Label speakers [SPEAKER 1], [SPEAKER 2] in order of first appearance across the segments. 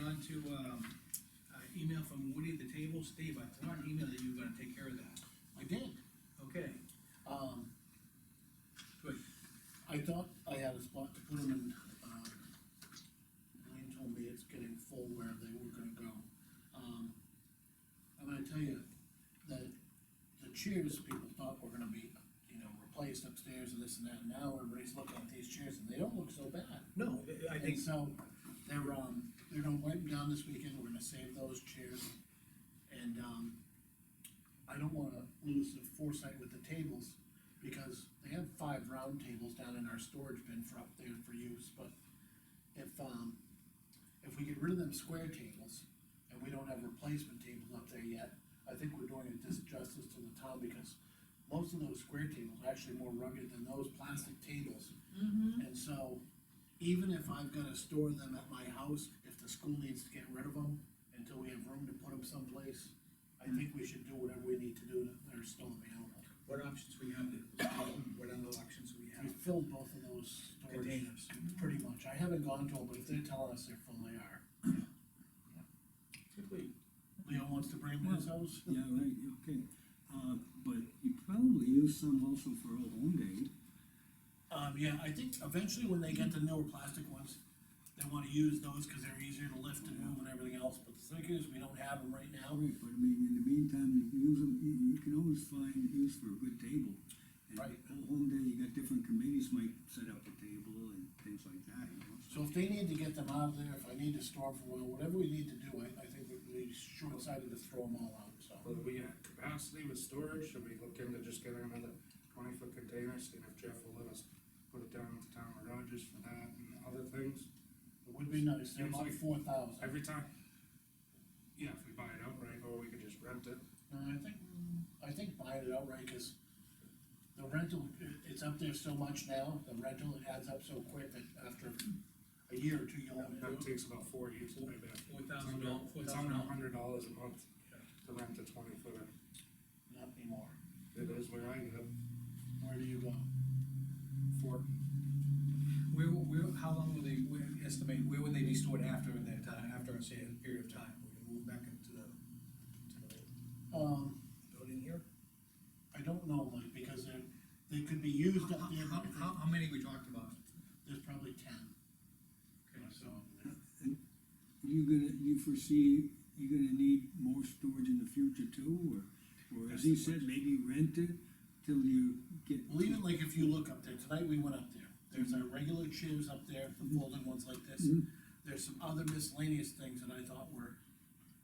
[SPEAKER 1] on to, um, uh, email from Woody at the table, Steve, I thought an email that you were gonna take care of that,
[SPEAKER 2] I did,
[SPEAKER 1] okay,
[SPEAKER 2] um,
[SPEAKER 1] good,
[SPEAKER 2] I thought I had a spot to put them in, um, Elaine told me it's getting full where they were gonna go. Um, I'm gonna tell you that the chairs people thought were gonna be, you know, replaced upstairs and this and that, now everybody's looking at these chairs and they don't look so bad.
[SPEAKER 1] no, I- I think,
[SPEAKER 2] And so, they're, um, they're gonna wipe them down this weekend, we're gonna save those chairs, and, um, I don't wanna lose the foresight with the tables, because they have five round tables down in our storage bin for up there for use, but if, um, if we get rid of them square tables, and we don't have replacement tables up there yet, I think we're doing a disjustice to the town, because most of those square tables are actually more rugged than those plastic tables. And so, even if I've gotta store them at my house, if the school needs to get rid of them, until we have room to put them someplace, I think we should do whatever we need to do that are still available.
[SPEAKER 1] what options we have, to- what other options we
[SPEAKER 2] We
[SPEAKER 1] have,
[SPEAKER 2] filled both of those storage,
[SPEAKER 1] containers.
[SPEAKER 2] pretty much, I haven't gone to them, but if they're telling us they're full, they are. Leo wants to bring them to his house,
[SPEAKER 3] Yeah, right, okay, uh, but you probably use some also for Old Home Day,
[SPEAKER 2] um, yeah, I think eventually when they get the newer plastic ones, they wanna use those, cause they're easier to lift and move and everything else, but the thing is, we don't have them right now.
[SPEAKER 3] right, but I mean, in the meantime, you can use them, you, you can always find use for a good table. And
[SPEAKER 2] Right.
[SPEAKER 3] Old Home Day, you got different committees might set up a table and things like that, you know, so.
[SPEAKER 2] So if they need to get them out of there, if I need to store them for a while, whatever we need to do, I, I think we- we short-sighted to throw them all out, so.
[SPEAKER 4] Will we have capacity with storage, should we look into just getting another twenty foot container, seeing if Jeff will let us put it down with town of Rogers for that and other things?
[SPEAKER 2] It would be nice, they're about
[SPEAKER 4] Seems
[SPEAKER 2] four thousand.
[SPEAKER 4] Every time, yeah, if we buy it outright, or we could just rent it,
[SPEAKER 2] No, I think, I think buying it outright, cause the rental, i- it's up there so much now, the rental, it adds up so quick that after a year or two, you'll have
[SPEAKER 4] that
[SPEAKER 2] to do it.
[SPEAKER 4] takes about four years to pay back.
[SPEAKER 1] Four thousand dollars, four
[SPEAKER 4] It's
[SPEAKER 1] thousand
[SPEAKER 4] under a
[SPEAKER 1] dollars.
[SPEAKER 4] hundred dollars a month to rent a twenty footer,
[SPEAKER 2] not anymore.
[SPEAKER 4] it is where I ended up,
[SPEAKER 2] Where do you go?
[SPEAKER 4] for
[SPEAKER 1] Where, where, how long will they, where, estimate, where would they be stored after that time, after a certain period of time? We're gonna move back into the, to the
[SPEAKER 2] Um,
[SPEAKER 1] building here?
[SPEAKER 2] I don't know, like, because they're, they could be used up there,
[SPEAKER 1] How,
[SPEAKER 2] but
[SPEAKER 1] how, how many we talked about?
[SPEAKER 2] there's probably ten,
[SPEAKER 1] Okay,
[SPEAKER 2] so.
[SPEAKER 3] You gonna, you foresee, you gonna need more storage in the future too, or, or as he said, maybe rent it till you get.
[SPEAKER 2] Well, even like if you look up there, tonight we went up there, there's our regular chairs up there, the folding ones like this.
[SPEAKER 3] Mhm.
[SPEAKER 2] There's some other miscellaneous things that I thought were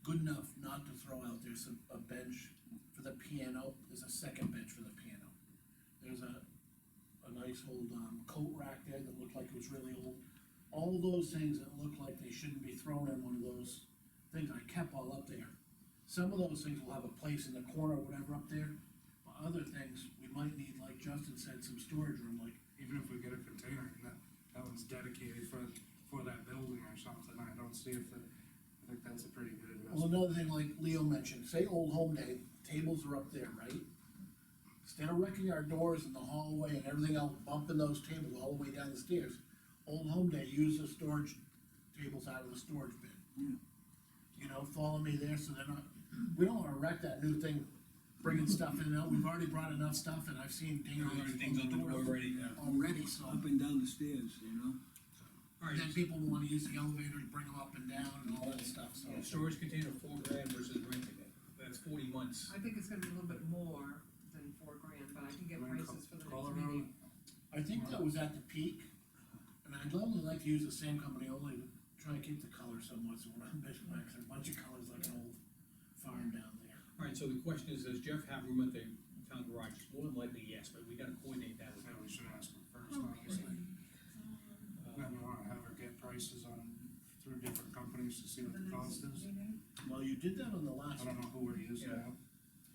[SPEAKER 2] good enough not to throw out, there's a, a bench for the piano, there's a second bench for the piano. There's a, a nice old, um, coat rack there that looked like it was really old. All those things that look like they shouldn't be thrown in one of those things, I kept all up there. Some of those things will have a place in the corner or whatever up there, but other things, we might need, like Justin said, some storage room, like,
[SPEAKER 4] even if we get a container, and that, that one's dedicated for, for that building or something, I don't see if, that- I think that's a pretty good
[SPEAKER 2] well,
[SPEAKER 4] investment.
[SPEAKER 2] another thing like Leo mentioned, say Old Home Day, tables are up there, right? Instead of wrecking our doors in the hallway and everything else, bumping those tables all the way down the stairs, Old Home Day, use the storage tables out of the storage bin.
[SPEAKER 3] Yeah.
[SPEAKER 2] You know, follow me there, so they're not, we don't wanna wreck that new thing, bringing stuff in and out, we've already brought enough stuff, and I've seen dingers.
[SPEAKER 1] Things on the door already, yeah.
[SPEAKER 2] Already, so.
[SPEAKER 3] Up and down the stairs, you know?
[SPEAKER 1] All right,
[SPEAKER 2] Then people wanna use the elevator to bring them up and down and all that stuff, so.
[SPEAKER 1] so storage container four grand versus renting it, that's forty months.
[SPEAKER 5] I think it's gonna be a little bit more than four grand, but I can get
[SPEAKER 4] Am I in
[SPEAKER 5] prices for the
[SPEAKER 4] Col-
[SPEAKER 5] next meeting.
[SPEAKER 2] I think that was at the peak, and I'd only like to use the same company, only to try and keep the color somewhat, so we're not missing like a bunch of colors like an old farm down there.
[SPEAKER 1] All right, so the question is, does Jeff have room at the town garage? More than likely, yes, but we gotta coordinate that with
[SPEAKER 4] Yeah,
[SPEAKER 1] him.
[SPEAKER 4] we should ask them first, obviously, then
[SPEAKER 1] Uh,
[SPEAKER 4] we wanna have her get prices on, through different companies to see what the cost is,
[SPEAKER 2] Well, you did that on the last,
[SPEAKER 4] I don't know who we're using
[SPEAKER 1] Yeah.
[SPEAKER 4] now.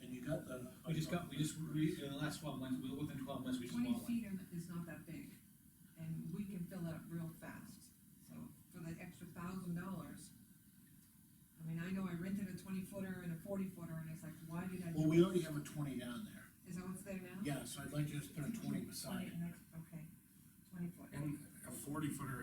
[SPEAKER 2] and you got the.
[SPEAKER 1] We just got, we just, we, in the last twelve months, we- within twelve months, we just
[SPEAKER 5] Twenty
[SPEAKER 1] bought one.
[SPEAKER 5] feet are- is not that big, and we can fill that real fast, so for that extra thousand dollars. I mean, I know I rented a twenty footer and a forty footer, and it's like, why did I?
[SPEAKER 2] Well,
[SPEAKER 5] do
[SPEAKER 2] we
[SPEAKER 5] it?
[SPEAKER 2] already have a twenty down there,
[SPEAKER 5] Is that what's there now?
[SPEAKER 2] yeah, so I'd like to just put a twenty beside it.
[SPEAKER 5] Twenty, next, okay, twenty footer.
[SPEAKER 4] And a forty footer